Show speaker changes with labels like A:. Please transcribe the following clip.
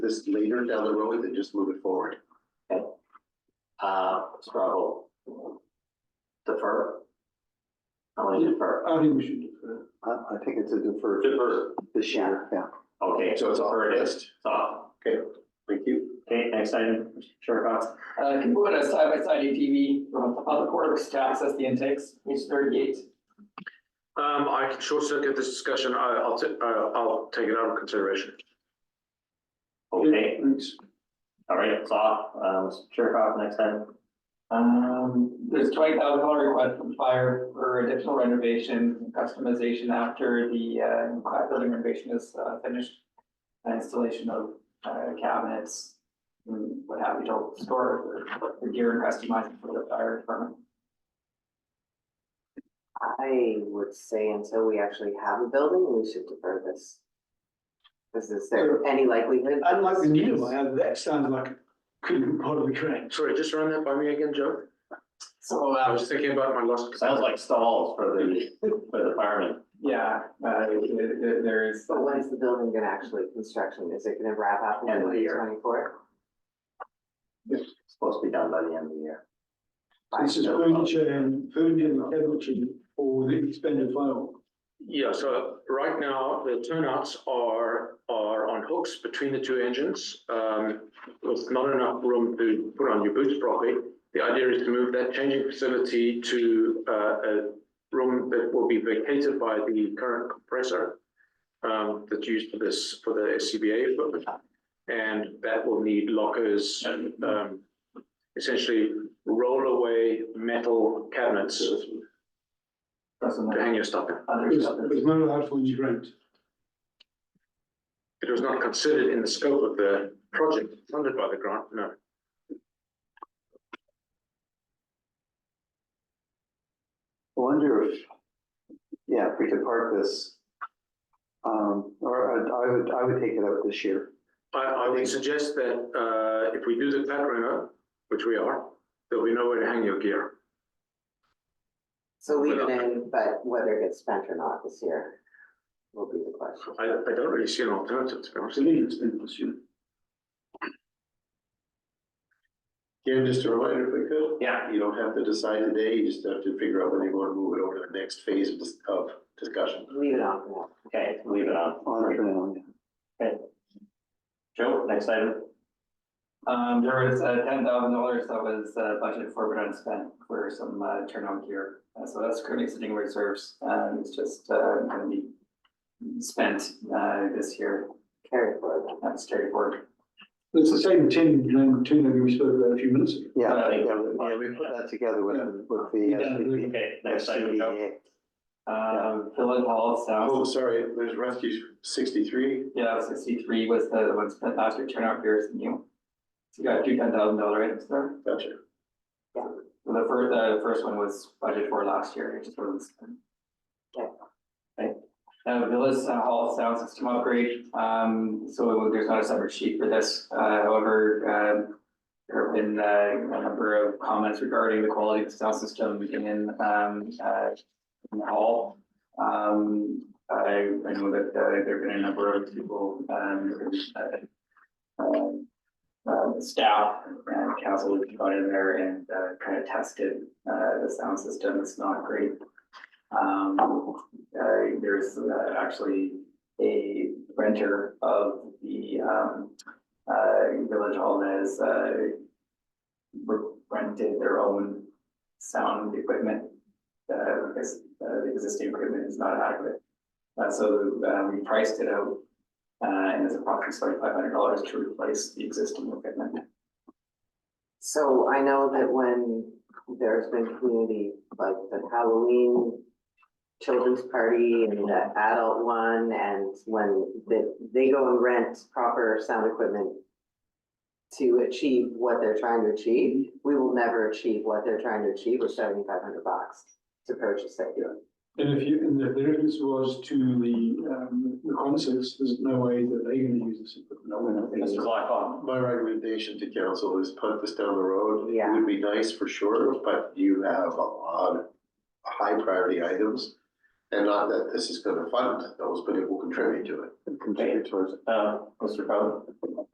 A: this later down the road and just move it forward.
B: Uh, struggle. Defer. I want to defer.
C: I think we should defer.
D: I, I think it's a deferred
B: Defer.
D: this year, yeah.
B: Okay,
A: So it's off
B: defer
A: our
B: it.
A: list.
B: It's off.
A: Thank you.
B: Okay, next item, Chair Cox.
E: Uh, can go on a side-by-side ATV from the public works to access the intakes, page thirty-eight.
F: Um, I can short circuit this discussion. I, I'll, ta- uh, I'll take it out of consideration.
B: Okay,
C: Thanks.
B: all right, it's off. Um, Chair Cox, next item.
E: Um, there's twenty thousand dollar request from fire for additional renovation, and customization after the, uh, class building renovation is, uh, finished. Installation of, uh, cabinets, and what have you, to store the gear and customize it for the fire department.
G: I would say until we actually have a building, we should defer this. Is is there any likelihood? that
C: I'd like to
G: this
C: need
G: is-
C: them, I- that sounds like it could be part of the grant.
F: Sorry, just run that by me again, Joe.
E: So,
F: I
E: uh,
F: was thinking about my last.
B: Sounds like stalls for the, for the firemen.
E: yeah, uh, there- there- there is.
G: But when's the building gonna actually, construction, is it gonna wrap up in
B: End of the
G: twenty
B: year.
G: twenty-four?
B: It's supposed to be done by the end of the year.
C: This is furniture and furniture and cabinetry for the expanded fire.
F: Yeah, so right now, the turnouts are, are on hooks between the two engines. Um, with not enough room to put on your boots properly. The idea is to move that changing facility to, uh, a room that will be vacated by the current compressor. Um, that's used for this, for the SCBA equipment. And that will need lockers and, um, essentially rollaway metal cabinets to
E: Doesn't.
F: hang your stuff in.
C: It was,
E: Others,
C: it was not allowed for in the grant.
F: It was not considered in the scope of the project funded by the grant, no.
D: I Wonder if, yeah, if we could park this. Um, or I- I would, I would take it out this year.
F: I, I would suggest that, uh, if we do the flat reno, which we are, there'll be nowhere to hang your gear.
G: So leave it
F: Well,
G: in, but whether it gets spent or not this year will be the question.
F: I, I don't really see an alternative, to be honest.
C: Absolutely, it's been pursued.
A: Again, just a reminder, if we could.
B: Yeah.
A: You don't have to decide today, you just have to figure out whether you want to move it over to the next phase of dis- of discussion.
G: Leave it on for now.
B: Okay, leave it on.
D: On the ground, yeah.
B: Joe, next item.
E: um, there was, uh, ten thousand dollars that was, uh, budgeted for but unspent for some, uh, turnout gear. Uh, so that's currently sitting in reserves, um, it's just, uh, gonna be spent, uh, this year,
G: Carry forward.
E: that's carried forward.
C: It's the same ten, nine, ten that we spoke about a few minutes ago.
D: Yeah,
B: Uh,
D: yeah, we- yeah, we put that together with, with the.
C: Yeah,
D: SCP.
B: Okay, next item, Joe.
D: SCBA.
E: Um, Philip Hall
A: Oh,
E: South,
A: sorry, there's rescue sixty-three.
E: yeah, sixty-three was the one spent last year, turnout gear is new. So you got two ten thousand dollar items there,
A: Gotcha.
E: So the first, the first one was budgeted for last year, it just wasn't spent. Uh, Villas uh, Hall sound system upgrade, um, so there's not a separate sheet for this, uh, however, um. There have been, uh, a number of comments regarding the quality of the sound system in, um, uh, in the hall. Um, I, I know that, uh, there've been a number of people, um, uh. um, Uh, staff and council have gone in there and, uh, kind of tested, uh, the sound system, it's not great. Um, uh, there's uh, actually a renter of the, um, uh, village hall that has, uh, re- rented their own sound equipment. Uh, because, uh, the existing equipment is not adequate. Uh, so, uh, we priced it out, uh, and it's approximately five hundred dollars to replace the existing equipment.
G: So I know that when there's been community, like the Halloween children's party and the adult one, and when the, they go and rent proper sound equipment to achieve what they're trying to achieve, we will never achieve what they're trying to achieve with seventy-five hundred bucks to purchase it.
C: And if you, and if the reference was to the, um, the concerts, there's no way that they're gonna use this equipment.
A: No, we're not gonna use
B: Mr.
A: it.
B: Blackwell.
A: My recommendation to council is punt this down the road. It
G: Yeah.
A: Would be nice for sure, but you have a lot of high priority items. And not that this is gonna fund those, but it will contribute to it.
D: Contribute towards it.
B: Uh, Mr. Crowe.